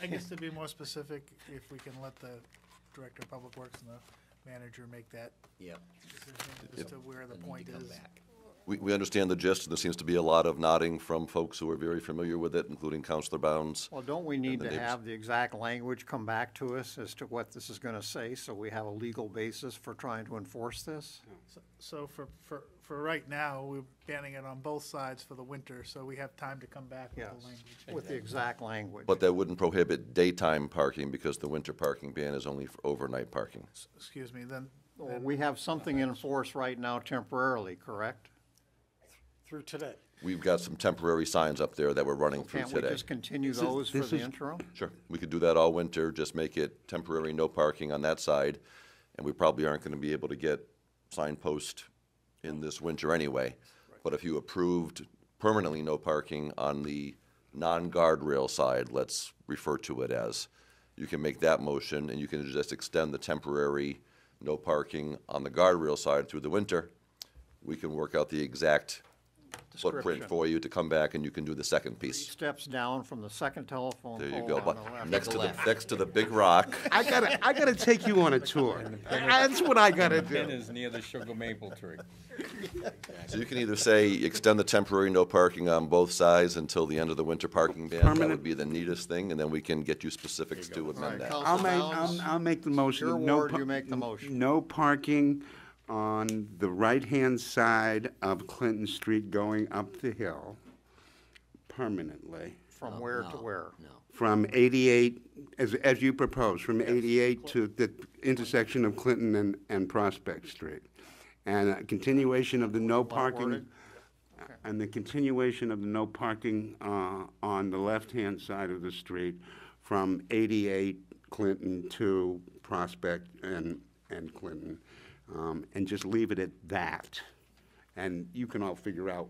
I guess to be more specific, if we can let the Director of Public Works and the manager make that Yep. decision as to where the Need to point come is. back. We, we understand the gist, and there seems to be a lot of nodding from folks who are very familiar with it, including Counselor Bounds. Well, don't we need the to neighbors. have the exact language come back to us as to what this is gonna say, so we have a legal basis for trying to enforce this? So- So for, for, for right now, we're banning it on both sides for the winter, so we have time to come back with Yes, the language. with the exact language. But that wouldn't prohibit daytime parking, because the winter parking ban is only for overnight parking. Excuse me, then, Or We have something in force right now temporarily, correct? through today. We've got some temporary signs up there that we're running through Can't we today. just continue those for the interim? Sure, we could do that all winter, just make it temporary, no parking on that side, and we probably aren't gonna be able to get signpost in this winter anyway. But if you approved permanently no parking on the non-guardrail side, let's refer to it as, you can make that motion, and you can just extend the temporary no parking on the guardrail side through the winter. We can work out the exact footprint Description. for you to come back, and you can do the second Three piece. Steps down from the second telephone There you pole go, on but the left. next to the, Left. next to the big rock. I gotta, I gotta take you on a tour. That's what I gotta Pin do. is near the sugar maple tree. So you can either say, extend the temporary no parking on both sides until the end of the winter parking ban. That would Permanent. be the neatest thing, and then we can get you specifics to amend that. Council I'll make, Bounds? I'll, I'll make the motion. Your No ward, par- you make the motion. No parking on the right-hand side of Clinton Street going up the hill permanently From where to No, where? No. from 88, as, as you propose, from 88 to the intersection of Clinton and, and Prospect Street. And a continuation of the no parking, worded? and the continuation of the no parking uh, on the left-hand side of the street from 88 Clinton to Prospect and, and Clinton. Um, And just leave it at that. And you can all figure out,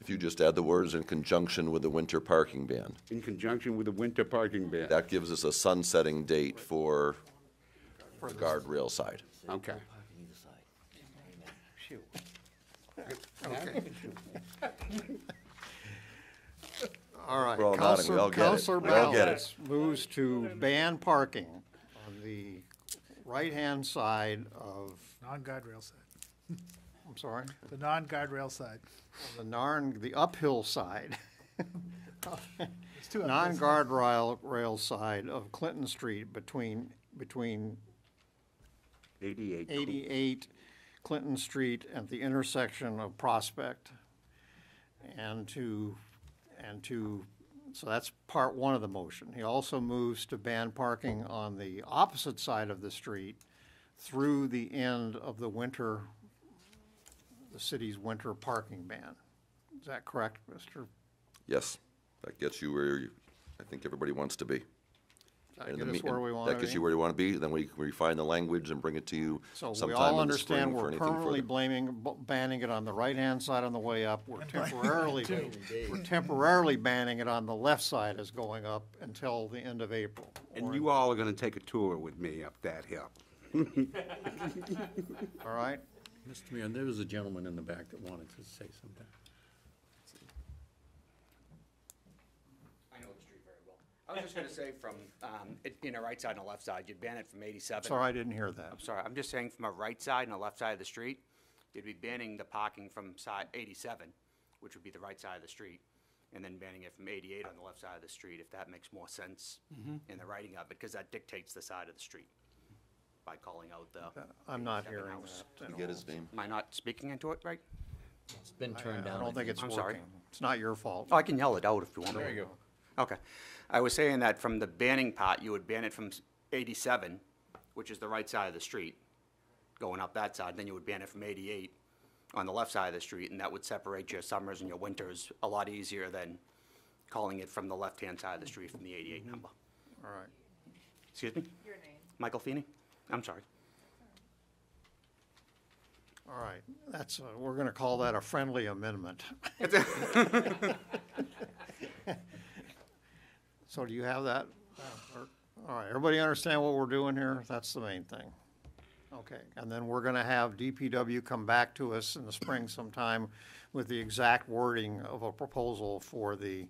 If you just add the words in conjunction with the winter parking ban, in conjunction with the winter parking ban. that gives us a sunsetting date for the guardrail side. Okay. Parking either side. All right. We're all nodding. We Counselor- all get it. Counselor We all get it. Bounds moves to ban parking on the right-hand side of, non-guardrail side, I'm sorry, the non-guardrail side. the narn, the uphill side, It's two updates. non-guardrail rail side of Clinton Street between, between 88 Clinton. 88 Clinton Street at the intersection of Prospect. And to, and to, so that's part one of the motion. He also moves to ban parking on the opposite side of the street through the end of the winter, the city's winter parking ban. Is that correct, Mr.? Yes, that gets you where you- I think everybody wants to be. Does that And get the us me- where we and want to be? That gets you where you want to be, then we we refine the language and bring it to you So we sometime all in the spring understand for we're anything further. permanently blaming, b- banning it on the right-hand side on the way up. We're temporarily, we're temporarily banning it on the left side as going up until the end of April. And you all are gonna take a tour with me up that hill. All right? Mr. Mayor, there was a gentleman in the back that wanted to say something. I know the street very well. I was just gonna say from, um, it- you know, right side and the left side, you'd ban it from eighty-seven. Sorry, I didn't hear that. I'm sorry, I'm just saying from a right side and a left side of the street, you'd be banning the parking from side eighty-seven, which would be the right side of the street, and then banning it from eighty-eight on the left side of the street, if that makes more sense in the writing of it, because that dictates the side of the street by calling out the. I'm not 87 hearing house. that. at Get all. his name. Am I not speaking into it right? It's been I turned down. I don't think it's I'm sorry. working. It's not your fault. Uh, Oh, I can yell it out if you want. There you go. Okay. I was saying that from the banning part, you would ban it from s- 87, which is the right side of the street, going up that side. Then you would ban it from 88 on the left side of the street, and that would separate your summers and your winters a lot easier than calling it from the left-hand side of the street from the 88 number. All right. Excuse me? Your name? Michael Feeney. I'm sorry. All right. That's, uh, we're going to call that a friendly amendment. So do you have that? uh, All right, everybody understand what we're doing here? That's the main thing. Okay, and then we're gonna have DPW come back to us in the spring sometime with the exact wording of a proposal for the